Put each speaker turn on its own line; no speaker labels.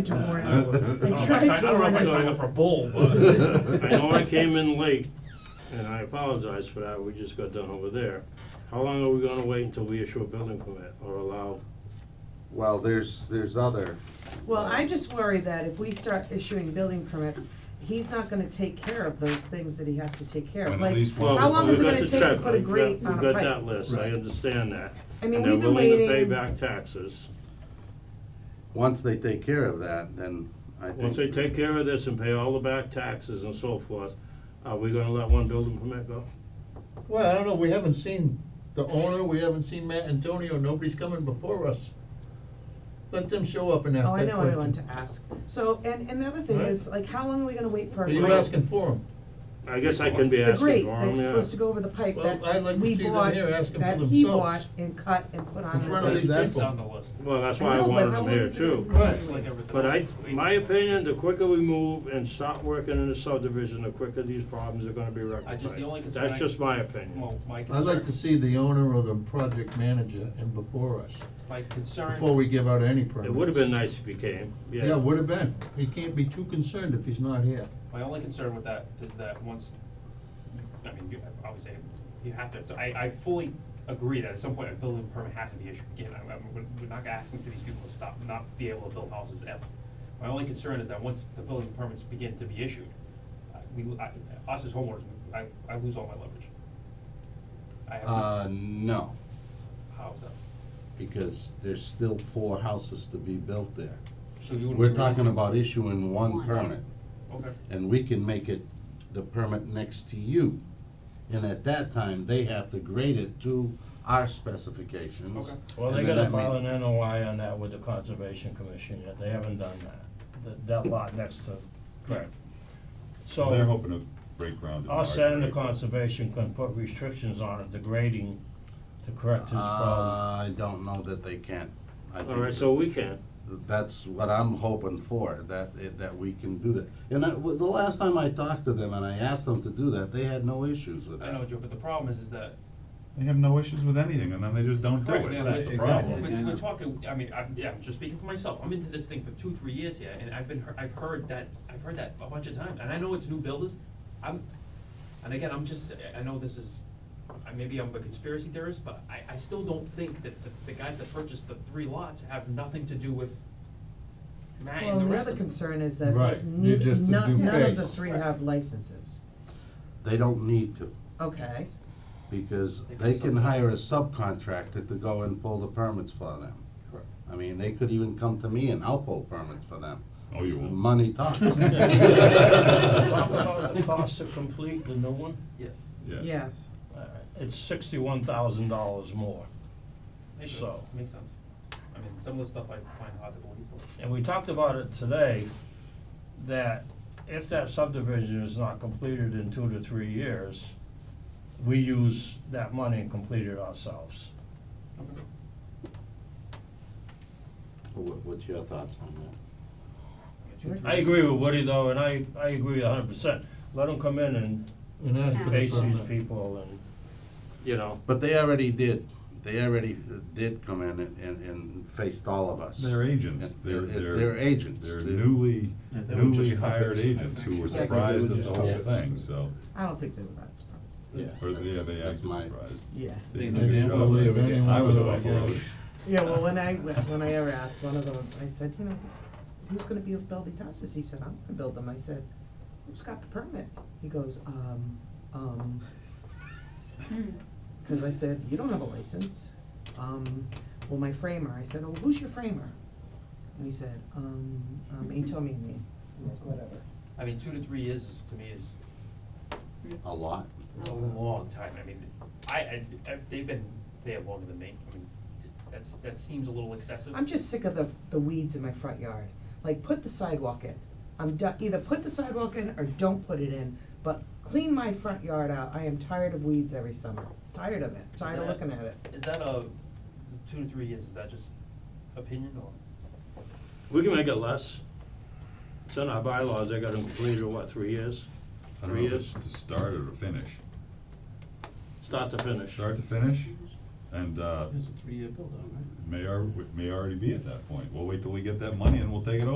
tried to warn
I
him.
don't
I
know if
tried
I
to
don't know
warn
if I signed
him.
up for bull, but
I know I came in late, and I apologize for that, we just got done over there. How long are we gonna wait until we issue a building permit or allow?
Well, there's, there's other,
Well, I just worry that if we start issuing building permits, he's not gonna take care of those things that he has to take care of.
And at
Like,
least one-
how long
Well,
is it
we've got
gonna
the
take to
check,
put a
we've got-
grate on a
We've got that
pipe?
list, I understand that.
I mean,
And they're
we've been
willing to pay
waiting-
back taxes.
once they take care of that, then I think.
Once they take care of this and pay all the back taxes and so forth, are we gonna let one building permit go?
Well, I don't know, we haven't seen the owner, we haven't seen Matt Antonio, nobody's coming before us. Let them show up and ask
Oh, I
that
know I want to
question.
ask. So, and, and another thing
Right.
is, like, how long are we gonna wait for a
Are
grate?
you asking for them?
I guess I can be
The
asking
grate
for them,
that's
yeah.
supposed to go over the pipe
Well, I'd
that
like to
we
see them
bought,
here asking for
that he bought
themselves.
and cut and put on.
In
the
front of
grate.
these
That's-
it's
people.
on the list.
Well, that's
I
why I
know, but
wanted
how
them
long
here
is it gonna
too.
be?
Right.
Like everything
But I,
else.
my opinion, the quicker we move and stop working in the subdivision, the quicker these problems are gonna be rectified.
the only concern I-
That's just my opinion.
Well, my concern.
I'd like to see the owner or the project manager in before us,
My concern.
before we give out any permits.
It would've been nice if you came, yeah.
Yeah, would've been. He can't be too concerned if he's not here.
My only concern with that is that once, I mean, you, obviously, you have to, so I, I fully agree that at some point a building permit has to be issued again. I, I, we're- we're not asking for these people to stop, not be able to build houses ever. My only concern is that once the building permits begin to be issued, uh, we, I, us as homeowners, I, I lose all my leverage. I have, no-
Uh, no,
how is that?
because there's still four houses to be built there.
So you wouldn't.
We're
be
talking
releasing-
about issuing one
One.
permit,
Okay,
and we can make it the permit next to you. And at that time, they have to grade it to our specifications.
Okay.
Well, they
and then
gotta
that may-
file an NOI on that with the Conservation Commission yet, they haven't done that, that, that lot next to Craig. So.
They're hoping to break ground in March
Us
or
and the
April.
conservation can put restrictions on it, the grading, to correct his problem.
Uh, I don't know that they can. I
All right,
think
so we can.
that's what I'm hoping for, that, that we can do that. And I, well, the last time I talked to them and I asked them to do that, they had no issues with
I
that.
know, Joe, but the problem is, is that
They have no issues with anything, and then they just don't do
Correct, yeah,
it, that's
but-
the
We're,
problem.
yeah, yeah.
we're talking, I mean, I'm, yeah, I'm just speaking for myself, I'm into this thing for two, three years here, and I've been, hear- I've heard that, I've heard that a bunch of times, and I know it's new builders, I'm, and again, I'm just, I- I know this is, I, maybe I'm a conspiracy theorist, but I, I still don't think that the, the guys that purchased the three lots have nothing to do with Matt
Well,
and the
the
rest
other
of them.
concern is that
Right,
they-
you just
none,
do
none of the
phase.
three have licenses,
They don't need to,
okay?
because
They can
they can
sub-
hire a subcontractor to go and pull the permits for them.
Correct.
I mean, they could even come to me and I'll pull permits for them.
Oh, you won't.
Money talks.
How about the cost to complete the new one?
Yes.
Yes.
Uh, It's sixty-one thousand dollars more.
Makes sense,
So-
makes sense, I mean, some of the stuff I find hard to believe, but.
And we talked about it today, that if that subdivision is not completed in two to three years, we use that money and complete it ourselves.
What, what's your thoughts on that?
I agree with Woody though, and I, I agree a hundred percent. Let them come in and
And ask for the
face these
permit.
people and.
You know,
But they already did, they already did come in and, and, and faced all of us.
They're agents,
Yeah,
they're,
they're-
they're.
they're agents.
They're
They're-
newly,
Yeah, they were
newly
just
hired
puppets, I
agents who were
Yeah, they
surprised
were
at
just
the whole
puppets.
thing, so,
I don't think they were that surprised.
Yeah.
or, yeah, they
That's
acted
my-
surprised.
Yeah.
They
They
did a
didn't
good
believe
job.
anyone
I was
would
all
have
for
guessed.
it.
Yeah, well, when I, when I ever asked one of them, I said, you know, who's gonna be, build these houses? He said, I'm gonna build them. I said, who's got the permit? He goes, um, um, cause I said, you don't have a license. Um, well, my framer, I said, oh, who's your framer? And he said, um, um, he told me a name, I'm like, whatever.
I mean, two to three years is, to me, is
A lot.
It's a long time, I mean, I, I, I- they've been there longer than me, I mean, that's, that seems a little excessive.
I'm just sick of the, the weeds in my front yard. Like, put the sidewalk in. I'm done, either put the sidewalk in or don't put it in, but clean my front yard out. I am tired of weeds every summer. Tired of it, tired of looking at it.
Is that a, two to three years, is that just opinion or?
we can make it less. It's in our bylaws, they got them completed, what, three years?
I don't know
Three
if it's
years,
to start or to finish.
start to finish.
Start to finish, and, uh,
It's a three-year build-out, right?
may, al- may already be at that point. We'll wait till we get that money and we'll take it over.